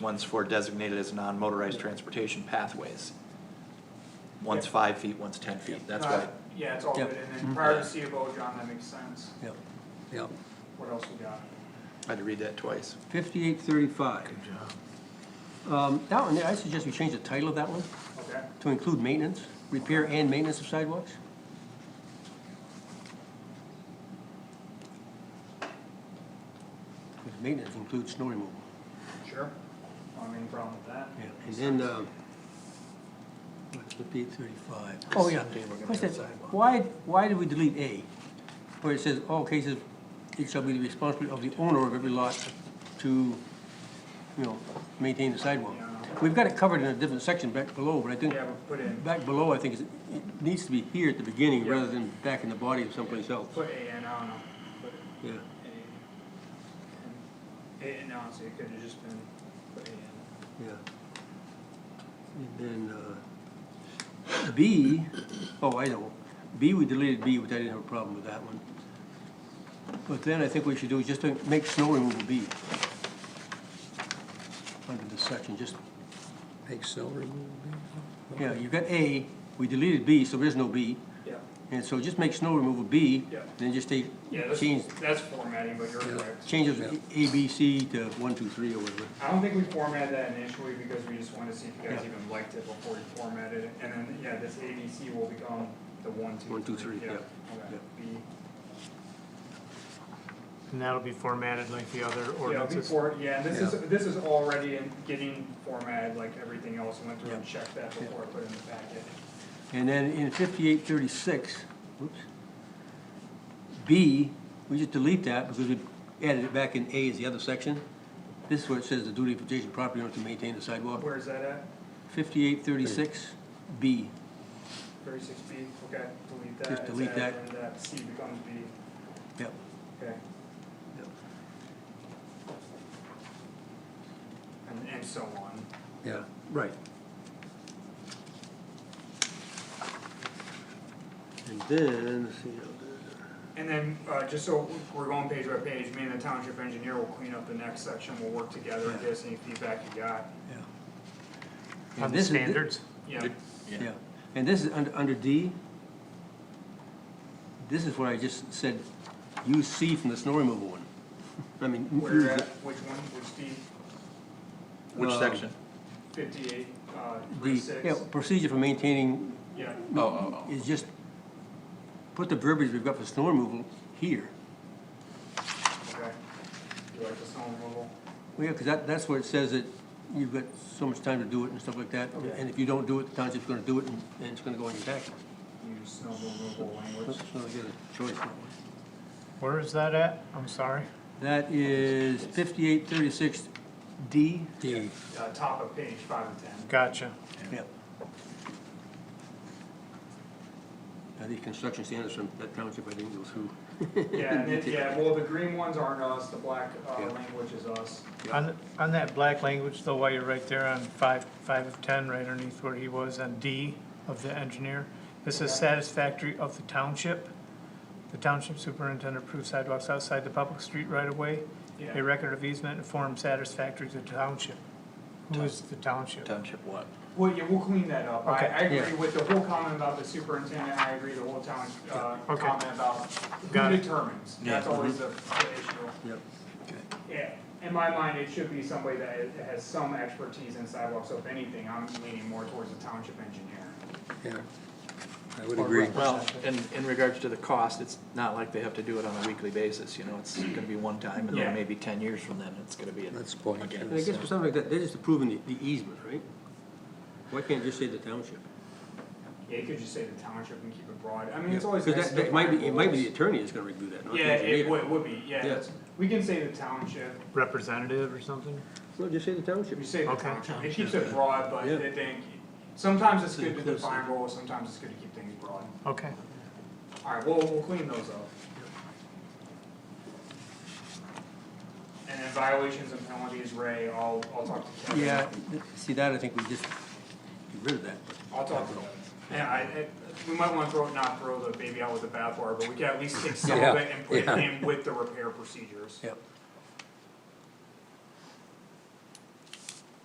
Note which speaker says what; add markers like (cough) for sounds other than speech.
Speaker 1: One's for designated as non-motorized transportation pathways. One's five feet, one's ten feet, that's
Speaker 2: Uh,
Speaker 1: why,
Speaker 2: Yeah, it's all
Speaker 3: Yep.
Speaker 2: good, and then prior to C of O, John, that makes sense,
Speaker 3: Yep, yep.
Speaker 2: what else we got?
Speaker 1: I had to read that twice.
Speaker 3: Fifty-eight thirty-five. Good job. Um, that one, there, I suggest we change the title of that one
Speaker 2: Okay,
Speaker 3: to include maintenance, repair and maintenance of sidewalks. Because maintenance includes snow removal.
Speaker 2: sure, I don't have any problem with that.
Speaker 3: Yeah, and then, um, what's the B thirty-five? Oh, yeah.
Speaker 4: Someday we're gonna
Speaker 3: What's
Speaker 4: have
Speaker 3: that?
Speaker 4: sidewalk.
Speaker 3: Why, why did we delete A? Where it says, all cases, it shall be the responsibility of the owner of every lot to, you know, maintain the sidewalk. We've got it covered in a different section back below, but I think,
Speaker 2: Yeah, we'll put in,
Speaker 3: back below, I think it's- it needs to be here at the beginning
Speaker 2: Yeah.
Speaker 3: rather than back in the body of someplace else.
Speaker 2: put A in, I don't know, put
Speaker 3: Yeah,
Speaker 2: A. in. A, and honestly, it could've just been put A in,
Speaker 3: yeah. And then, uh, B, oh, I know, B, we deleted B, which I didn't have a problem with that one. But then I think what we should do is just to make snow removal B. Under this section, just,
Speaker 4: Make snow removal.
Speaker 3: yeah, you've got A, we deleted B, so there's no B.
Speaker 2: yeah,
Speaker 3: And so just make snow removal B,
Speaker 2: Yeah.
Speaker 3: then just take,
Speaker 2: yeah,
Speaker 3: change,
Speaker 2: that's, that's formatting, but you're correct.
Speaker 3: change of A, B, C to one, two, three, or whatever.
Speaker 2: I don't think we formatted that initially, because we just wanted to see if you guys
Speaker 3: Yeah.
Speaker 2: even liked it before we formatted it, and then, yeah, this A, B, C will become the one, two, three.
Speaker 3: One, two, three, yeah,
Speaker 2: Okay,
Speaker 3: yeah.
Speaker 2: B.
Speaker 5: And that'll be formatted like the other
Speaker 2: Yeah,
Speaker 5: ordinances.
Speaker 2: before, yeah, and this is,
Speaker 3: Yeah.
Speaker 2: this is already in getting formatted like everything else, I went through and
Speaker 3: Yeah.
Speaker 2: checked that before I put it in the packet.
Speaker 3: And then in fifty-eight thirty-six, whoops, B, we just delete that because we added it back in A as the other section. This is where it says the duty of adjacent property owner to maintain the sidewalk.
Speaker 2: Where is that at?
Speaker 3: Fifty-eight thirty-six, B,
Speaker 2: Thirty-six B, okay, delete that.
Speaker 3: Just
Speaker 2: It's
Speaker 3: delete
Speaker 2: added,
Speaker 3: that.
Speaker 2: And that C becomes B,
Speaker 3: yep,
Speaker 2: okay,
Speaker 3: yep.
Speaker 2: and, and so on.
Speaker 3: Yeah, right. And then, let's see,
Speaker 2: And then, uh, just so we're going page by page, me and the township engineer will clean up the next section, we'll work together and give us any feedback you got.
Speaker 3: yeah. And
Speaker 5: On the
Speaker 3: this is-
Speaker 5: standards,
Speaker 2: Yeah,
Speaker 1: Good.
Speaker 3: Yeah, and this is under, under D. This is where I just said, use C from the snow removal one. I mean. use
Speaker 2: where at,
Speaker 3: the-
Speaker 2: which one, which D,
Speaker 1: Which
Speaker 3: Um,
Speaker 1: section?
Speaker 2: fifty-eight, uh,
Speaker 3: the-
Speaker 2: three-six?
Speaker 3: Yeah, procedure for maintaining
Speaker 2: Yeah,
Speaker 1: Oh, oh, oh.
Speaker 3: is just, put the verbiage we've got for snow removal here.
Speaker 2: okay. You like the stone removal?
Speaker 3: Well, yeah, because that, that's where it says that you've got so much time to do it and stuff like that.
Speaker 2: Okay.
Speaker 3: And if you don't do it, the township's gonna do it and, and it's gonna go on your tax.
Speaker 2: use snow removal
Speaker 3: So
Speaker 2: language.
Speaker 3: you got a choice. that one.
Speaker 5: where is that at? I'm sorry.
Speaker 3: That is fifty-eight thirty-six D.
Speaker 4: D,
Speaker 2: Uh, top of page five and ten.
Speaker 5: Gotcha.
Speaker 3: Yep. I think construction standards from that township I didn't go through. (laughs)
Speaker 2: Yeah,
Speaker 5: (laughs)
Speaker 2: and it, yeah, well, the green ones aren't us, the black, uh,
Speaker 3: Yeah.
Speaker 2: language is us.
Speaker 5: On, on that black language though, while you're right there on five, five of ten, right underneath where he was on D of the engineer, this is satisfactory of the township. The township superintendent approves sidewalks outside the public street right of way.
Speaker 2: Yeah.
Speaker 5: A record of easement and form satisfactory to the township. Who is the township?
Speaker 1: Township what?
Speaker 2: Well, yeah, we'll clean that up. I,
Speaker 5: Okay,
Speaker 2: I agree
Speaker 3: yeah.
Speaker 2: with the whole comment about the superintendent, I agree the whole town, uh,
Speaker 5: Okay.
Speaker 2: comment about
Speaker 5: Got
Speaker 2: who
Speaker 5: it. Mm-hmm.
Speaker 2: determines.
Speaker 1: Yeah.
Speaker 2: That's always the, the issue.
Speaker 3: Yep.
Speaker 2: Yeah, in my mind, it should be somebody that has- has some expertise in sidewalks, so if anything, I'm leaning more towards the township engineer.
Speaker 4: yeah, I would agree.
Speaker 1: Well, in, in regards to the cost, it's not like they have to do it on a weekly basis, you know, it's gonna be one time, and
Speaker 2: Yeah.
Speaker 1: then maybe ten years from then, it's gonna be. a-
Speaker 4: That's the point.
Speaker 1: Again.
Speaker 3: And I guess for something like that, they're just approving the, the easement, right? Why can't it just say the township?
Speaker 2: Yeah, you could just say the township and keep it broad. I mean, it's always.
Speaker 3: Because
Speaker 2: nice
Speaker 3: that,
Speaker 2: to
Speaker 3: that might be, it might
Speaker 2: define
Speaker 3: be the
Speaker 2: rules.
Speaker 3: attorney that's gonna review that, not the
Speaker 2: Yeah, it
Speaker 3: engineer.
Speaker 2: would, would be, yeah,
Speaker 3: Yeah.
Speaker 2: that's, we can say the township,
Speaker 5: Representative or something?
Speaker 3: No, just say the township.
Speaker 2: we say the
Speaker 5: Okay.
Speaker 2: township, it keeps it broad, but
Speaker 3: Yeah.
Speaker 2: I think, sometimes it's
Speaker 3: It's
Speaker 2: good to
Speaker 3: inclusive.
Speaker 2: define roles, sometimes it's good to keep things broad.
Speaker 5: Okay.
Speaker 2: Alright, we'll, we'll clean those up. And then violations and penalties, Ray, I'll, I'll talk to Kevin.
Speaker 3: Yeah, th- see that, I think we just get rid of that.
Speaker 2: I'll talk to Kevin. Yeah, I, I, we might wanna throw, not throw the baby out with the bathwater, but we can at least take some
Speaker 4: Yeah,
Speaker 2: of it and put it
Speaker 4: yeah.
Speaker 2: in with the repair procedures.
Speaker 3: Yep,